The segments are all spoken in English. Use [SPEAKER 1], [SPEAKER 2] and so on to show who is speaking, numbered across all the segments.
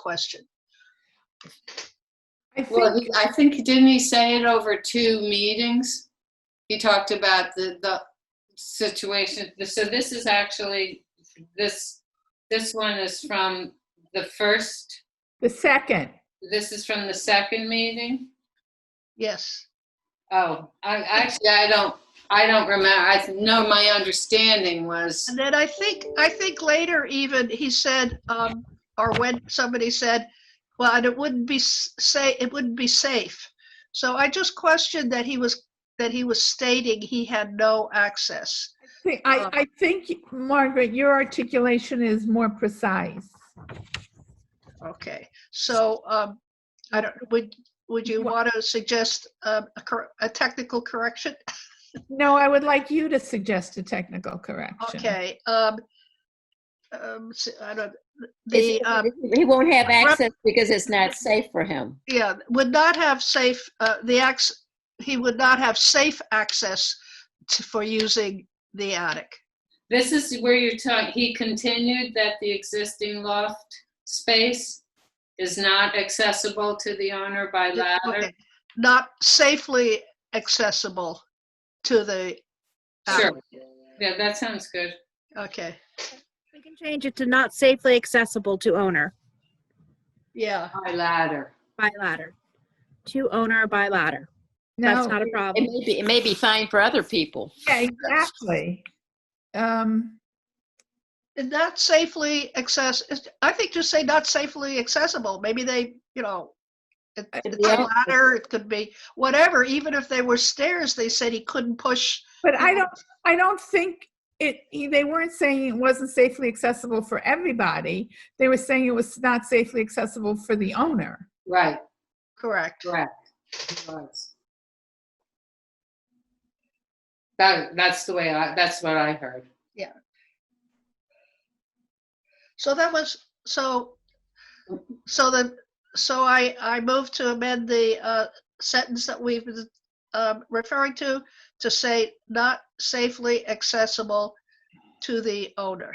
[SPEAKER 1] question.
[SPEAKER 2] I think,
[SPEAKER 3] Well, he- I think, didn't he say it over two meetings? He talked about the, the situation, so this is actually, this, this one is from the first,
[SPEAKER 2] the second,
[SPEAKER 3] this is from the second meeting?
[SPEAKER 1] Yes,
[SPEAKER 3] Oh, I, actually, I don't, I don't remember, I know my understanding was,
[SPEAKER 1] and then I think, I think later even, he said, um, or when somebody said, well, and it wouldn't be s- say, it wouldn't be safe. So I just questioned that he was, that he was stating he had no access.
[SPEAKER 2] I, think-
[SPEAKER 4] Uh.
[SPEAKER 2] I I think, Margaret, your articulation is more precise.
[SPEAKER 1] Okay, so, um, I don't, would, would you
[SPEAKER 2] Wha-
[SPEAKER 1] want to suggest um, a, cor- a technical correction?
[SPEAKER 2] No, I would like you to suggest a technical correction.
[SPEAKER 1] Okay, um, um, s- I don't, the, um,
[SPEAKER 5] It's- He won't have access because it's not safe for him.
[SPEAKER 1] Yeah, would not have safe, uh, the ax, he would not have safe access to, for using the attic.
[SPEAKER 3] this is where you're talking, he continued that the existing loft space is not accessible to the owner by ladder.
[SPEAKER 1] Okay, Not safely accessible to the.
[SPEAKER 3] Sure,
[SPEAKER 1] attic.
[SPEAKER 3] yeah, that sounds good.
[SPEAKER 1] Okay,
[SPEAKER 4] We can change it to not safely accessible to owner
[SPEAKER 1] yeah,
[SPEAKER 3] By ladder.
[SPEAKER 4] by ladder. To owner by ladder. That's
[SPEAKER 2] No,
[SPEAKER 4] not a
[SPEAKER 5] It
[SPEAKER 4] problem.
[SPEAKER 5] may be, it may be fine for other people.
[SPEAKER 2] yeah, exactly. Um,
[SPEAKER 1] not safely access, is- I think just say not safely accessible, maybe they, you know, it-
[SPEAKER 2] Uh,
[SPEAKER 1] it's
[SPEAKER 5] yeah.
[SPEAKER 1] a ladder, it could be whatever, even if they were stairs, they said he couldn't push.
[SPEAKER 2] But I
[SPEAKER 4] Uh-huh.
[SPEAKER 2] don't, I don't think it, they weren't saying it wasn't safely accessible for everybody. They were saying it was not safely accessible for the owner.
[SPEAKER 3] Right,
[SPEAKER 1] Correct,
[SPEAKER 3] correct. It was. That, that's the way I, that's what I heard.
[SPEAKER 1] so that was, so So then, so I, I move to amend the uh, sentence that we've been um, referring to, to say not safely accessible to the owner.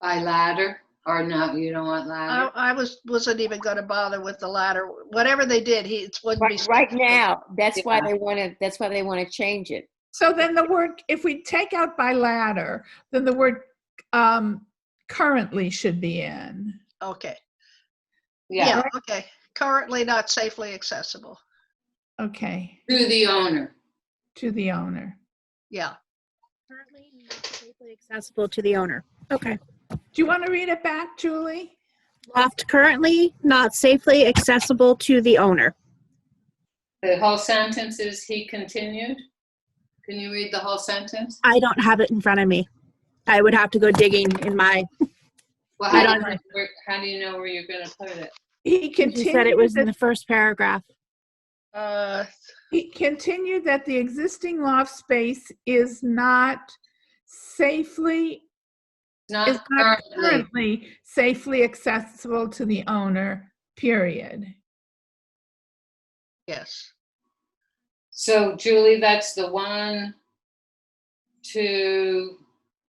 [SPEAKER 3] By ladder, or no, you don't want
[SPEAKER 1] I,
[SPEAKER 3] ladder?
[SPEAKER 1] I was, wasn't even gonna bother with the latter, whatever they did, he, it wouldn't be.
[SPEAKER 5] Right, right now, that's why
[SPEAKER 3] Yeah.
[SPEAKER 5] they want to, that's why they want to change it.
[SPEAKER 2] So then the word, if we take out by ladder, then the word um, currently should be in.
[SPEAKER 1] Okay,
[SPEAKER 3] Yeah,
[SPEAKER 1] yeah, okay, currently not safely accessible,
[SPEAKER 2] Okay,
[SPEAKER 3] to the owner.
[SPEAKER 2] to the owner.
[SPEAKER 1] yeah.
[SPEAKER 4] Currently not safely Accessible to the owner. Okay.
[SPEAKER 2] Do you want to read it back, Julie?
[SPEAKER 4] Loft currently not safely accessible to the owner.
[SPEAKER 3] The whole sentence is, he continued? Can you read the whole sentence?
[SPEAKER 4] I don't have it in front of me. I would have to go digging in my,
[SPEAKER 3] Well,
[SPEAKER 4] I
[SPEAKER 3] how do you,
[SPEAKER 4] don't
[SPEAKER 3] know where- how do you know where you're gonna put it?
[SPEAKER 2] He
[SPEAKER 4] she said it
[SPEAKER 2] continued,
[SPEAKER 4] was in
[SPEAKER 2] that-
[SPEAKER 4] the first paragraph.
[SPEAKER 1] Uh,
[SPEAKER 2] he continued that the existing loft space is not safely is
[SPEAKER 3] Not
[SPEAKER 2] not
[SPEAKER 3] currently,
[SPEAKER 2] currently safely accessible to the owner, period.
[SPEAKER 1] Yes,
[SPEAKER 3] so Julie, that's the one, two,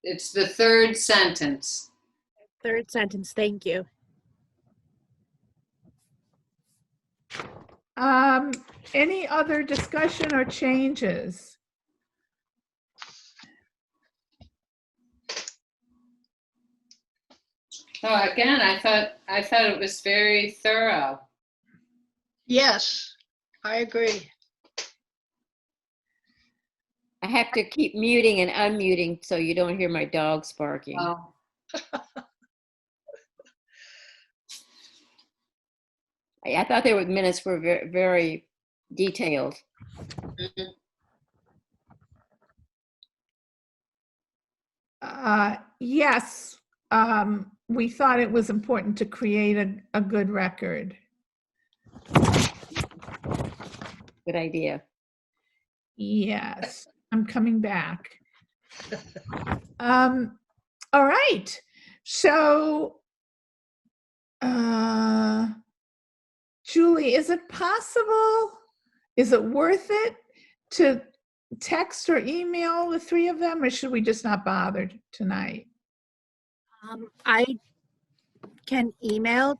[SPEAKER 3] it's the third sentence.
[SPEAKER 4] Third sentence, thank you.
[SPEAKER 2] Um, any other discussion or changes?
[SPEAKER 3] Oh, again, I thought, I thought it was very thorough.
[SPEAKER 1] yes, I agree.
[SPEAKER 5] I have to keep muting and unmuting so you don't hear my dogs barking.
[SPEAKER 3] Oh,
[SPEAKER 5] I I thought their minutes were ver- very detailed.
[SPEAKER 2] Uh, yes, um, we thought it was important to create a, a good record.
[SPEAKER 5] Good idea.
[SPEAKER 2] Yes, I'm coming back. Um, all right, so uh, Julie, is it possible? Is it worth it to text or email the three of them, or should we just not bother tonight?
[SPEAKER 4] Um, I Um, can email